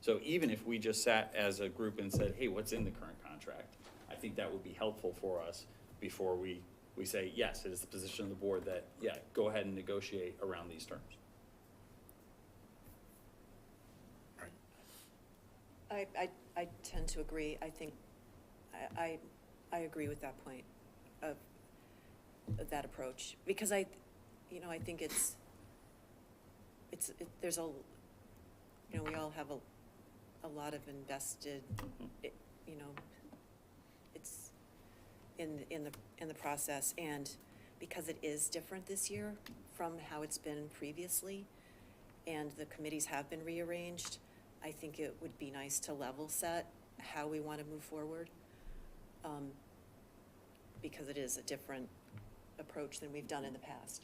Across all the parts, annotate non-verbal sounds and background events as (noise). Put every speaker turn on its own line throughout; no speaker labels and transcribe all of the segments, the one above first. So even if we just sat as a group and said, hey, what's in the current contract? I think that would be helpful for us before we, we say, yes, it is the position of the board that, yeah, go ahead and negotiate around these terms.
I, I, I tend to agree. I think, I, I, I agree with that point of, of that approach. Because I, you know, I think it's, it's, it, there's a, you know, we all have a, a lot of invested, it- you know, it's in, in the, in the process. And because it is different this year from how it's been previously, and the committees have been rearranged, I think it would be nice to level set how we want to move forward. um, Because it is a different approach than we've done in the past.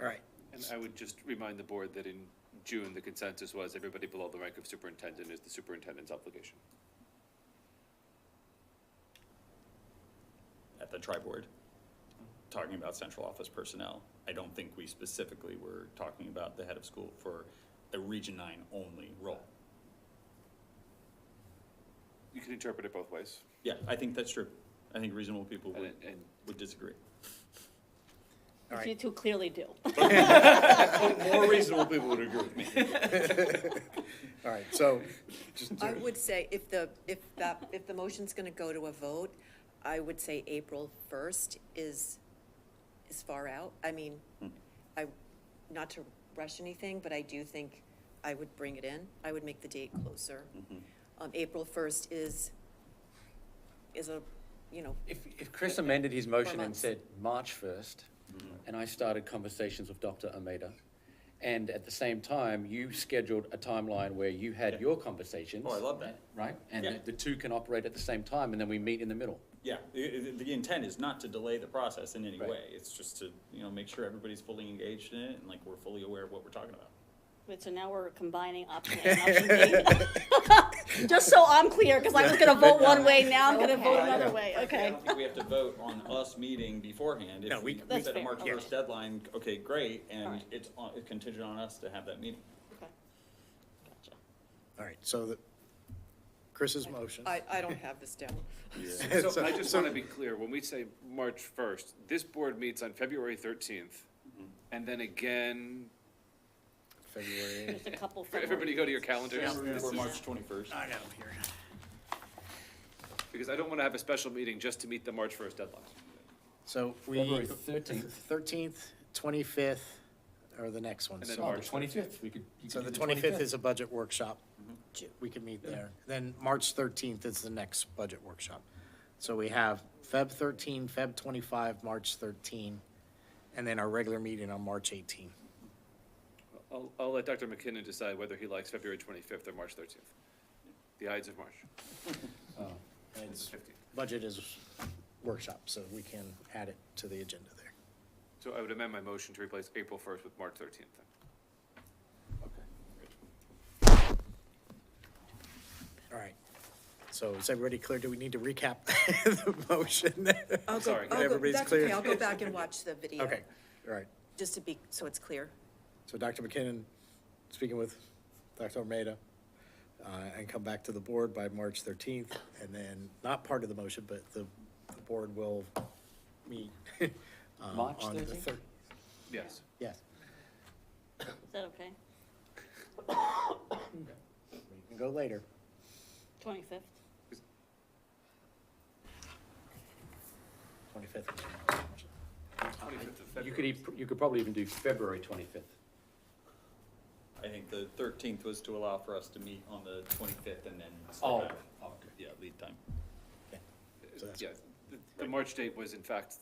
All right,
And I would just remind the board that in June, the consensus was everybody below the rank of superintendent is the superintendent's obligation.
at the tri-board, talking about central office personnel. I don't think we specifically were talking about the head of school for a Region Nine only role.
You can interpret it both ways,
Yeah, I think that's true. I think reasonable people
and,
would,
it- and
would disagree.
all (laughs)
You
right.
two clearly do.
More reasonable people would agree with me.
All right, so, just,
I would say if the, if that, if the motion's going to go to a vote, I would say April 1st is, is far out. I mean,
(laughs)
I, not to rush anything, but I do think I would bring it in. I would make the date closer. Um, April 1st is, is a, you know,
If, if Chris amended his motion and
months.
said March first,
Mm-hmm.
and I started conversations with Dr. Ameda, and at the same time, you scheduled a timeline where you had your conversations.
Oh, I love that.
Right? And
Yeah.
the- the two can operate at the same time, and then we meet in the middle.
Yeah, the, the- the intent is not to delay the process in any
Right.
way. It's just to, you know, make sure everybody's fully engaged in it and like we're fully aware of what we're talking about.
But so now we're combining option A and option B. (laughs) Just so I'm clear, because I was gonna vote one way, now I'm gonna vote another way,
I
okay?
don't think we have to vote on us meeting beforehand.
No,
If
we-
we
That's
set a
fair,
March
okay.
first deadline, okay, great, and
Alright.
it's on- it's contingent on us to have that meeting.
Okay. Gotcha.
all right, so the, Chris's motion.
I, I don't have this down.
So
(laughs)
I just want to be clear, when we say March first, this board meets on February thirteenth, and then again,
February.
There's a couple.
everybody go to your calendars,
Or March twenty-first.
know, here.
because I don't want to have a special meeting just to meet the March first deadline.
So we.
February 13th.
Thirteenth, twenty-fifth, or the next one.
And then
So-
March.
Oh, twenty-fifth, we could. you
So
could
the
do
twenty-fifth is a budget workshop. We can meet there. Then March thirteenth is the next budget workshop. So we have Feb thirteen, Feb twenty-five, March thirteen, and then our regular meeting on March eighteen.
I'll, I'll let Dr. McKinnon decide whether he likes February twenty-fifth or March thirteenth, the Ides of (laughs) March, Uh,
And
the fifteenth.
Budget is workshop, so we can add it to the agenda there.
So I would amend my motion to replace April first with March thirteenth then.
All right. So is everybody clear? Do we need to recap (laughs) the motion?
I'll go-
Sorry,
I'll go-
everybody's
that's
clear?
okay. I'll go back and watch
(laughs)
the video.
Okay, all right.
Just to be, so it's clear.
So Dr. McKinnon, speaking with Dr. Almeida, uh, and come back to the board by March 13th, and then, not part of the motion, but the, the board will meet. (laughs) um,
March
on the
13th?
thir-
Yes.
Yes.
Is that okay?
We can go later.
Twenty-fifth?
25th.
Twenty-fifth of
that. You
February.
could, e- you could probably even do February twenty-fifth.
I think the thirteenth was to allow for us to meet on the twenty-fifth and then.
Oh,
Yeah, lead time.
So that's-
Yeah, the, the March date was in fact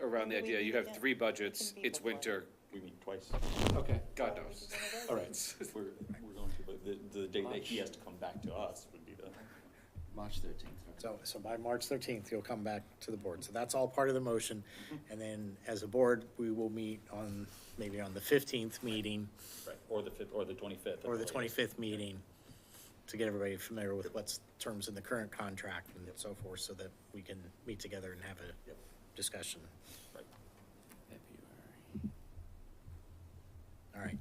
around the
Maybe we
idea, you
can
have
get-
three
it
budgets,
can be
it's
before.
winter,
We meet twice.
Okay,
God knows. (laughs)
all right,
We're, we're going to, but the, the day that he has to come back to us would be the.
March thirteenth.
So, so by March 13th, you'll come back to the board. So that's all part of the motion. And then, as a board, we will meet on, maybe on the 15th meeting,
Right, or the fifth, or the twenty-fifth.
or the 25th meeting to get everybody familiar with what's terms in the current contract and so forth, so that we can meet together and have a discussion.